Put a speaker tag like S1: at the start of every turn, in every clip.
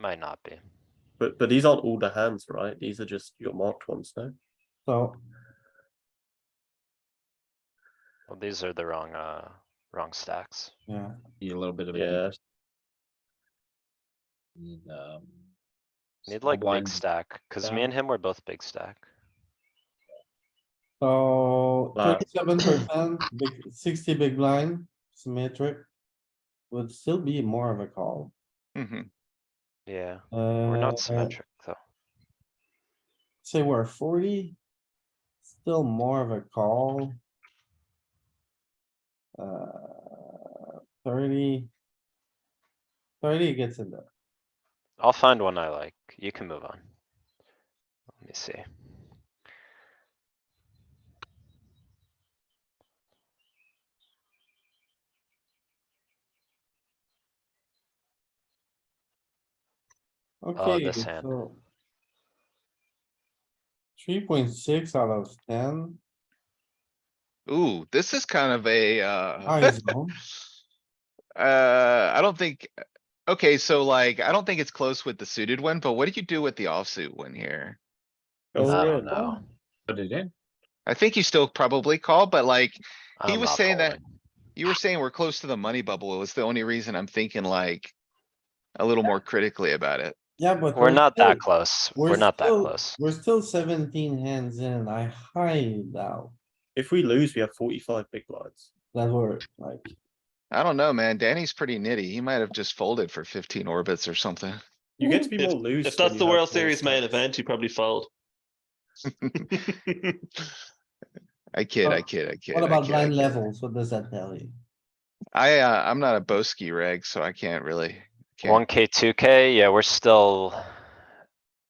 S1: Might not be.
S2: But but these aren't all the hands, right? These are just your marked ones, no?
S3: So
S1: Well, these are the wrong, uh, wrong stacks.
S3: yeah,
S4: Need a little bit of. a
S2: Yeah.
S4: deep- Need, um.
S1: Need
S4: small
S1: like big
S4: blind.
S1: stack, cuz me
S4: stack.
S1: and him were both big stack.
S3: so
S2: Wow.
S3: thirty-seven percent, big, sixty big blind, symmetric. Would still be more of a call.
S1: Yeah,
S3: Uh,
S1: we're not symmetric though.
S3: Say we're forty. Still more of a call. Uh, thirty. Thirty gets in there.
S1: I'll find one I like. You can move on. Let me see.
S3: Okay.
S1: Oh, this hand.
S3: Three point six out of ten,
S5: Ooh, this is kind of a,
S3: high
S5: uh,
S3: zone.
S5: uh, I don't think, okay, so like, I don't think it's close with the suited one, but what did you do with the offsuit one here?
S2: Go
S1: I
S2: for
S1: don't
S2: it.
S1: know.
S4: Put it in.
S5: I think you still probably call, but like, He
S1: I'm
S5: was
S1: not
S5: saying that-
S1: calling.
S5: you were saying we're close to the money bubble. It was the only reason I'm thinking like a little more critically about it.
S3: Yeah, but.
S1: We're not that
S3: still-
S1: close.
S3: we're
S1: We're not that
S3: still-
S1: close.
S3: We're still seventeen hands in. I highly doubt
S2: If we lose, we have forty-five big blinds.
S3: that we're like,
S5: I don't know, man. Danny's pretty nitty. He might have just folded for fifteen orbits or something.
S2: You get to be
S6: If-
S2: more loose.
S6: If
S2: when
S6: that's
S2: you
S6: the
S2: have
S6: World
S2: more
S6: Series main
S2: stacks.
S6: event, you probably fold.
S5: I kid, I
S3: Oh,
S5: kid, I kid.
S3: what
S5: I
S3: about
S5: kid, I
S3: blind
S5: kid.
S3: levels? What does that tell you?
S5: I, uh, I'm not a Boski reg, so I can't really. can't-
S1: One K, two K, yeah, we're still.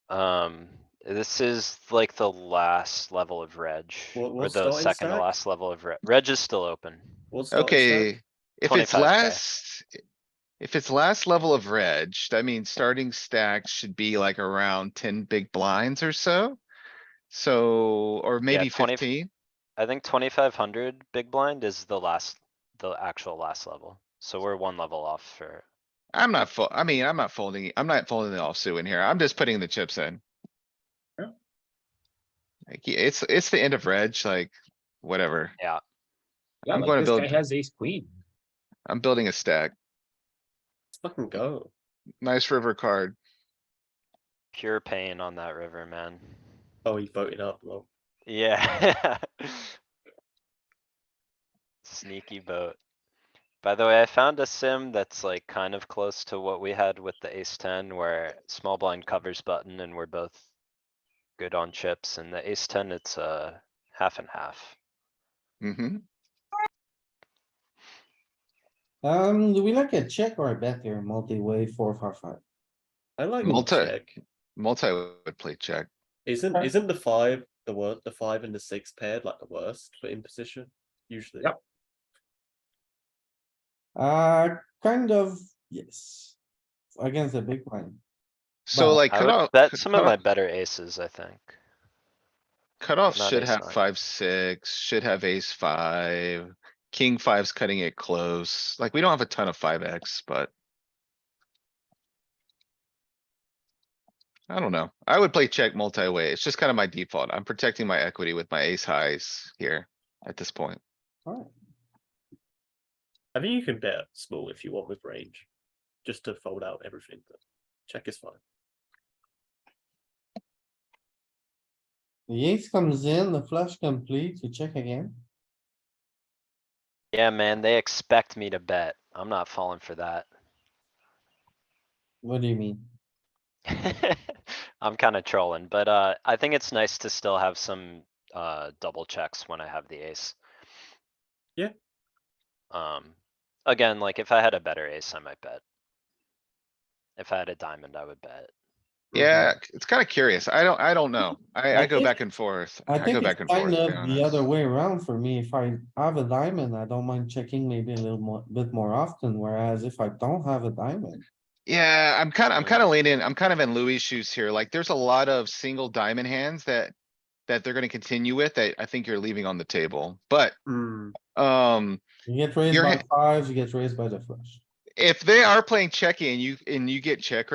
S1: Um, this is like the last level of reg,
S2: What-
S1: or
S2: what's
S1: the
S2: starting
S1: second to
S2: stack?
S1: last level of reg. Reg is still open.
S2: What's the
S5: Okay, if it's
S1: 25K.
S5: last, if it's last level of reg, I mean, starting stack should be like around ten big blinds or so. So, or maybe
S1: 20
S5: fifteen.
S1: I think twenty-five hundred big blind is the last, the actual last level. So we're one level off for,
S5: I'm not, fo- I mean, I'm not folding, I'm not folding the offsuit in here. I'm just putting the chips in.
S4: Yeah.
S5: Like, yeah, it's, it's the end of reg, like, whatever.
S4: Yeah,
S5: I'm
S4: like
S5: gonna
S4: this
S5: build-
S4: guy has ace queen.
S5: I'm building a stack.
S2: Let's fucking go.
S5: Nice river card.
S1: pure pain on that river, man.
S2: Oh, he voted up. Well,
S1: Yeah. Sneaky boat. By the way, I found a sim that's like kind of close to what we had with the ace ten where small blind covers button and we're both. Good on chips and the ace ten, it's uh half and half.
S5: Mm-hmm.
S3: Um, do we like a check or a bet here? Multi-way, four, five, five.
S2: I like
S5: Multi-
S2: check.
S5: Multi would play check.
S2: Isn't
S3: Okay.
S2: isn't the five the wor the five and the six paired like the worst for imposition usually?
S4: Yep.
S3: Uh, kind of, yes. Against the big blind.
S5: So
S3: Well,
S5: like
S1: I
S5: cut
S1: would
S5: off.
S1: bet some of
S5: cut
S1: my
S5: off-
S1: better aces, I think.
S5: Cutoff
S1: not
S5: should
S1: ace
S5: have
S1: nine.
S5: five, six, should have ace five. King five's cutting it close. Like, we don't have a ton of five X, but. I don't know. I would play check multi-way. It's just kind of my default. I'm protecting my equity with my ace highs here at this point.
S3: Alright,
S2: I think you can bet small if you want with range, just to fold out everything. But check is fine.
S3: the ace comes in, the flush complete, you check again.
S1: Yeah, man, they expect me to bet. I'm not falling for that.
S3: What do you mean?
S1: I'm kinda trolling, but uh, I think it's nice to still have some uh, double checks when I have the ace.
S2: Yeah.
S1: Um, again, like if I had a better ace, I might bet. If I had a diamond, I would bet.
S5: Yeah, it's kind of curious. I don't, I don't know. I,
S3: Mm-hmm. I
S5: I go
S3: think-
S5: back and forth.
S3: I
S5: I go
S3: think
S5: back
S3: it's
S5: and forth.
S3: kind
S5: to be
S3: of the
S5: honest.
S3: other way around for me. If I have a diamond, I don't mind checking maybe a little more, bit more often, whereas if I don't have a diamond.
S5: Yeah, I'm kinda, I'm kinda
S1: Mm.
S5: leaning, I'm kind of in Louis' shoes here. Like, there's a lot of single diamond hands that. That they're gonna continue with that I think you're leaving on the table, but, um,
S3: You get raised
S5: Your
S3: by
S5: hand-
S3: fives, you get raised by the flush.
S5: if they are playing checky and you, and you get check